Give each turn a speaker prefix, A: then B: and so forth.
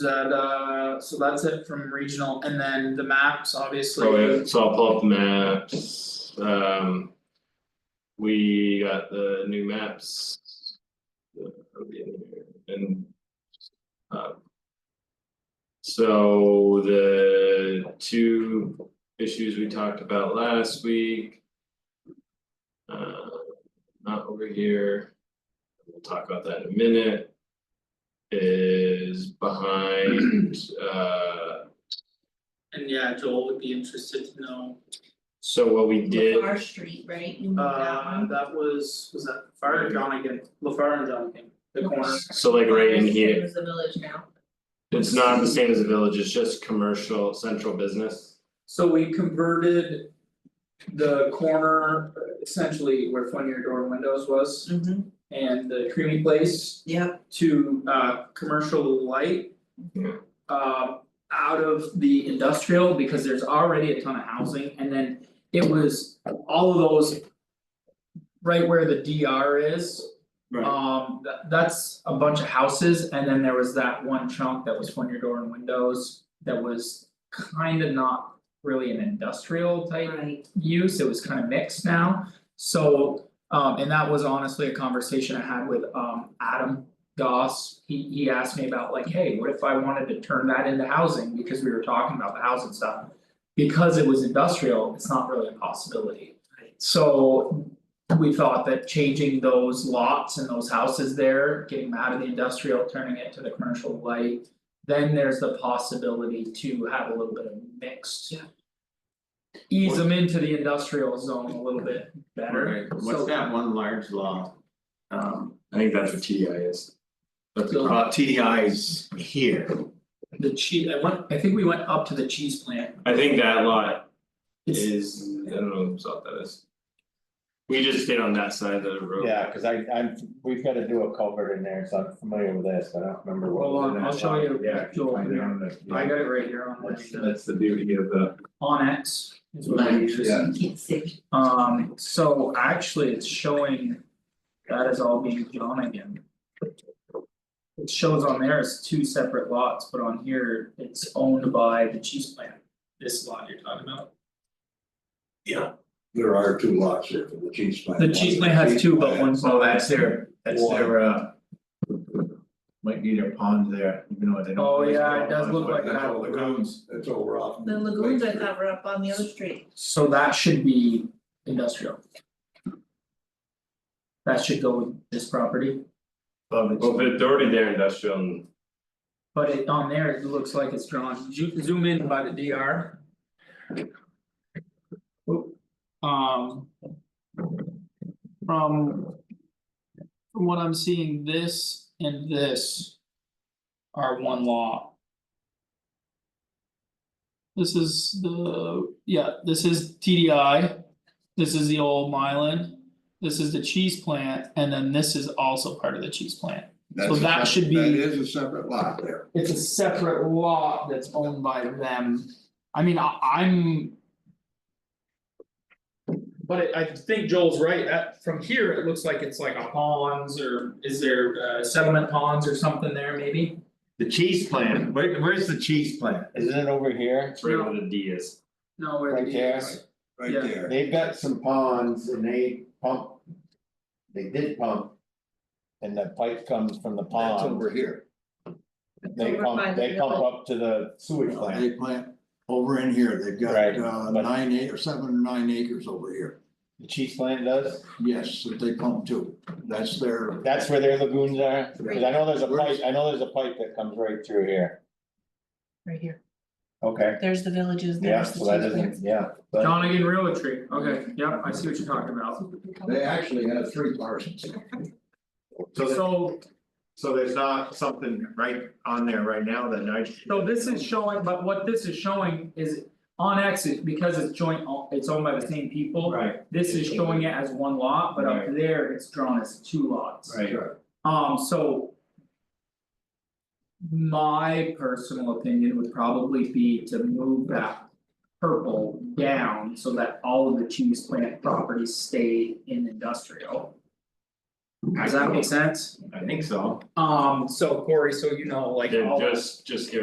A: And uh so that's it from regional and then the maps, obviously.
B: So if- so I'll pull up the maps, um. We got the new maps. uh, of the area And. um, So the two issues we talked about last week. Uh, not over here. We'll talk about that in a minute. Is behind, uh,
A: And yeah, Joel would be interested to know,
B: so what we did.
C: Our street, right, you moved that
A: uh
C: one,
A: that was, was that Fire and Jonigan, LaFar and Jonigan, the corner.
B: So like right in
C: It
B: here,
C: was the village now,
B: it's not the same as a village, it's just commercial, central business.
A: So we converted the corner essentially where Funnier Door Windows was
C: mm-hmm,
A: and the creamy place
C: yep,
A: to uh commercial light.
B: Yeah.
A: uh, out of the industrial because there's already a ton of housing and then it was all of those. Right where the DR is, um tha- that's a bunch of houses and then there was that one chunk that was front your door and windows. That was kind of not really an industrial type
C: right,
A: use, it was kind of mixed now. So, um, and that was honestly a conversation I had with, um, Adam Goss. He, he asked me about like, hey, what if I wanted to turn that into housing, because we were talking about the housing stuff. Because it was industrial, it's not really a possibility. So we thought that changing those lots and those houses there, getting them out of the industrial, turning it to the commercial light. Then there's the possibility to have a little bit of mixed ease them into the industrial zone a little bit better.
D: Right, what's
A: So-
D: that one large law? Um,
B: I think that's what TDI is. That's
A: So-
B: a,
D: uh, TDI's here,
A: The cheese, I went, I think we went up to the cheese plant.
B: I think that lot
A: It's,
B: is, I don't know whose lot that is. We just stayed on that side of the road.
E: Yeah, cause I, I'm, we've gotta do a culvert in there, so I'm familiar with this, I don't remember what.
A: Hold
E: was
A: on,
E: in
A: I'll
E: that
A: show
E: one.
A: you,
E: Yeah, I can
A: Joel,
E: find
A: here.
E: it on the-
A: I
E: yeah.
A: got it right here on
E: That's,
A: the
E: that's the beauty of the,
A: Onyx is what I use.
E: Yeah.
C: you can't see,
A: Um, so actually, it's showing that is all being drawn again. It shows on there as two separate lots, but on here, it's owned by the cheese plant, this lot you're talking about.
F: There are two lots here for the cheese plant.
A: The cheese plant has two, but one's.
D: so that's their, that's their uh. Might need a pond there, even though they don't.
A: Oh, yeah, it does look like
F: That's
A: that.
F: all the grounds, that's over off.
C: the lagoons I thought were up on the other street,
A: So that should be industrial. That should go with this property,
D: Above it.
E: Oh,
B: Well, if it's already there industrial and
A: but it on there, it looks like it's drawn, Zo- zoom in by the DR. Um. From. From what I'm seeing, this and this. Are one lot. This is the, yeah, this is TDI. This is the old Mylan. This is the cheese plant, and then this is also part of the cheese plant. So
F: That's a
A: that
F: sep-
A: should be-
F: That is a separate lot there.
A: It's a separate lot that's owned by them. I mean, I I'm. But it- I think Joel's right, that from here, it looks like it's like a ponds or is there uh settlement ponds or something there maybe?
D: The cheese plant, where where's the cheese plant?
E: Isn't it over here,
B: it's right where the D is.
A: No, where
E: right there,
F: Right
A: Yeah.
F: there.
E: they've got some ponds and they pump. They did pump. And the pipe comes from the
F: That's over
E: pond,
F: here.
E: they
C: Over by
E: pump,
C: the
E: they pump
C: mill.
E: up to the sewage
F: They
E: plant,
F: plant over in here. They've got
E: Right,
F: uh
E: but-
F: nine eight or seven or nine acres over here.
E: the cheese plant does,
F: Yes, that they pump to. That's their.
E: that's where their lagoons are. Cause I know there's a pipe, I know there's a pipe that comes right through here,
C: right here,
E: okay,
C: there's the villages,
E: yeah,
C: there's the
E: so that
C: cheese
E: isn't,
C: plants.
E: yeah. but-
A: Donegan Realty, okay, yep, I see what you're talking about.
F: They actually have three parcels.
A: So,
D: so there's not something right on there right now that I.
A: so this is showing, but what this is showing is on exit, because it's joint, o- it's owned by the same people.
D: Right,
A: This is showing it as one lot, but up there, it's drawn as two lots.
D: right,
A: Um, so. My personal opinion would probably be to move that purple down so that all of the cheese plant properties stay in industrial. Does that make sense?
B: I think so,
A: Um, so Corey, so you know, like all
B: they're
A: the-
B: just, just getting